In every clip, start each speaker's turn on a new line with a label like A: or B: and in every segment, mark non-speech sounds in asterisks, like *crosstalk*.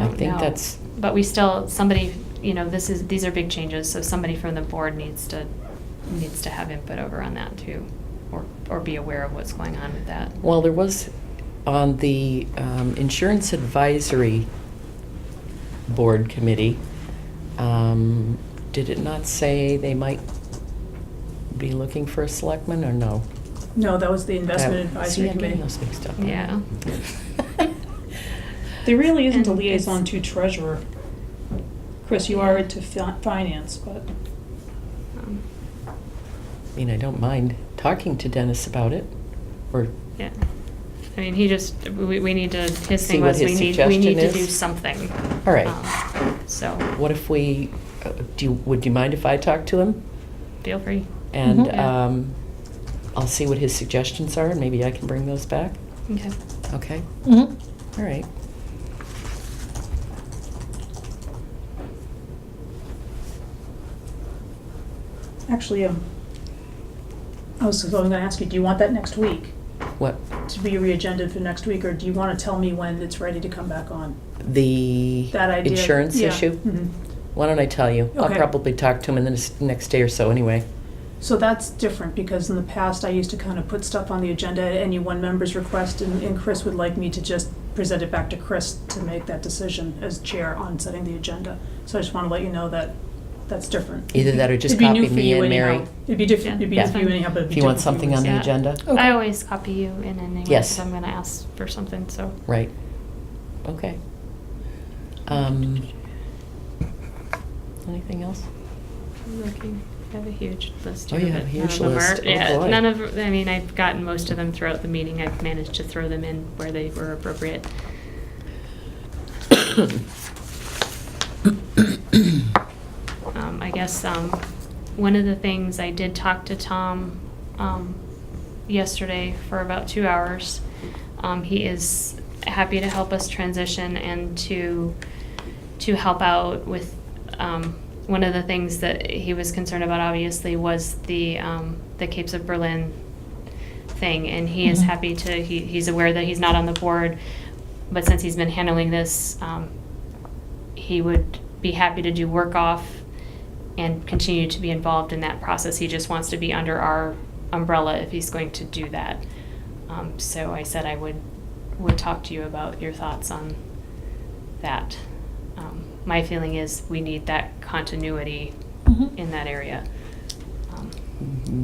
A: know.
B: that's-
A: But we still, somebody, you know, this is, these are big changes, so somebody from the board needs to, needs to have input over on that too, or, or be aware of what's going on with that.
B: Well, there was on the um, Insurance Advisory Board Committee, um, did it not say they might be looking for a selectman or no?
C: No, that was the investment
B: That-
C: advisory
B: See, I'm getting
C: committee.
B: those mixed up. *laughs*
A: Yeah.
C: There really isn't a
A: And it's-
C: liaison to treasurer. Chris, you are into fi- finance, but
A: Um,
B: I mean, I don't mind talking to Dennis about it, or,
A: Yeah. I mean, he just, we, we need to, his
B: See
A: thing
B: what
A: was, we
B: his
A: need, we need to
B: suggestion
A: do
B: is?
A: something.
B: all right.
A: Um, So,
B: What if we, uh, do, you- would you mind if I talk to him?
A: feel free.
B: And
A: Mhm. Yeah.
B: um, I'll see what his suggestions are, and maybe I can bring those back,
A: Okay.
B: okay?
D: Mm-hmm.
B: All right.
C: actually, um, I was going to ask you, do you want that next week?
B: What,
C: To be re-agendaed for next week, or do you want to tell me when it's ready to come back on?
B: the
C: That idea?
B: insurance
C: Yeah.
B: issue?
C: Mhm.
B: Why don't I tell you? I'll
C: Okay.
B: probably talk to him in the nes- next day or so anyway.
C: So that's different, because in the past, I used to kind of put stuff on the agenda at any one member's request, and, and Chris would like me to just present it back to Chris to make that decision as chair on setting the agenda. So I just want to let you know that that's different.
B: Either that or just
C: It'd be new
B: copy
C: for
B: me
C: you
B: and
C: anyhow.
B: Mary.
C: It'd be different,
A: Yeah.
C: it'd be
B: Yeah.
C: new for you anyhow, but it'd be
B: If you want
C: different for
B: something on
C: us.
B: the
A: Yeah.
B: agenda?
D: Okay.
A: I always copy you in anyways,
B: Yes.
A: I'm gonna ask for something, so.
B: Right. Okay. Um, Anything else?
A: I'm looking. I have a huge list.
B: Oh,
A: here,
B: you have a
A: but none
B: huge
A: of them are-
B: list. Oh, boy.
A: Yeah, none of, I mean, I've gotten most of them throughout the meeting. I've managed to throw them in where they were appropriate. Um, I guess, um, one of the things, I did talk to Tom, um, yesterday for about two hours. Um, he is happy to help us transition and to, to help out with, um, one of the things that he was concerned about obviously was the, um, the Capes of Berlin thing, and he is
D: Mhm.
A: happy to, he, he's aware that he's not on the board, but since he's been handling this, um, he would be happy to do work off and continue to be involved in that process. He just wants to be under our umbrella if he's going to do that. Um, so I said I would, would talk to you about your thoughts on that. Um, my feeling is we need that continuity in that area. Um,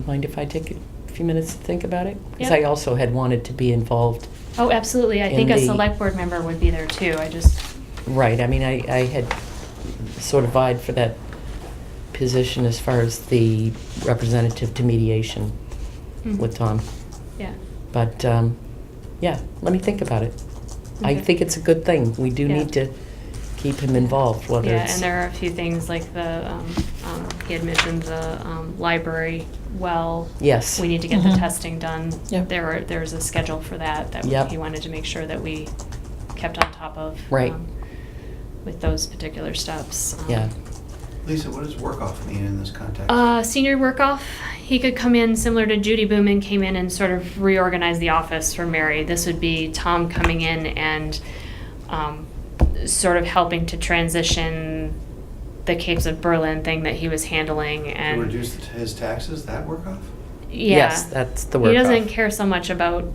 B: Mind if I take a few minutes to think about it? Because
A: Yeah.
B: I also had wanted to be involved.
A: Oh, absolutely. I think
B: In
A: a
B: the-
A: select board member would be there too. I just,
B: Right, I mean, I, I had sort of vied for that position as far as the representative to mediation
A: Mm-hmm.
B: with Tom.
A: hmm. yeah.
B: But, um, yeah, let me think about it. I
A: Okay.
B: think it's a good thing. We do
A: Yeah.
B: need to keep him involved, whether
A: Yeah,
B: it's.
A: and there are a few things like the, um, um, he had mentioned the, um, library well.
B: Yes.
A: We need to get the
D: Mhm.
A: testing done.
D: Yep.
A: There are, there's a schedule for that, that
B: Yep.
A: he wanted to make sure that we kept on top of.
B: Right.
A: um, With those particular steps. um,
B: Yeah.
E: Lisa, what does work off mean in this context?
A: Uh, senior work off, he could come in similar to Judy Booman came in and sort of reorganize the office for Mary. This would be Tom coming in and um, sort of helping to transition the Capes of Berlin thing that he was handling
E: To
A: and
E: reduce the- his taxes, that work off?
A: yeah.
B: Yes, that's the work
A: He doesn't
B: off.
A: care so much about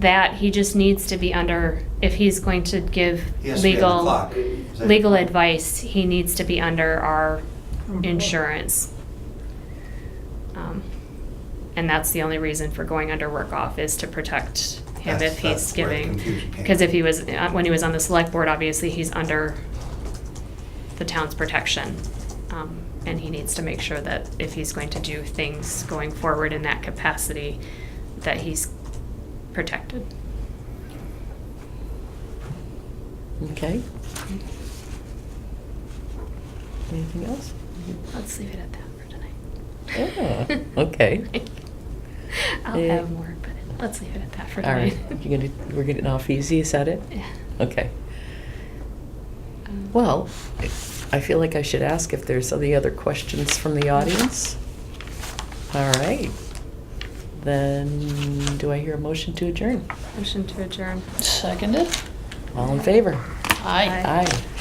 A: that. He just needs to be under if he's going to give
E: He has to be on the
A: legal
E: clock. Is that-
A: legal advice. He needs to be under our
C: Mhm.
A: insurance. Um, and that's the only reason for going under work off is to protect him
E: That's-
A: if he's
E: that's where the
A: giving.
E: confusion came
A: Because if
E: in.
A: he was uh, when he was on the select board, obviously he's under the town's protection. Um, and he needs to make sure that if he's going to do things going forward in that capacity, that he's protected.
B: Okay. Anything else?
A: Let's leave it at that for tonight. *laughs*
B: Ah, okay.
A: I'll
B: Eh.
A: have more, but let's leave it at that for
B: All
A: tonight.
B: right, you're gonna, we're getting off easy, is that it?
A: *laughs* Yeah.
B: Okay.
A: Um,
B: Well, I feel like I should ask if there's any other questions from the audience. All right. Then, do I hear a motion to adjourn?
A: Motion to adjourn.
D: Seconded.
B: All in favor?
D: Aye.
A: Aye.
B: Aye.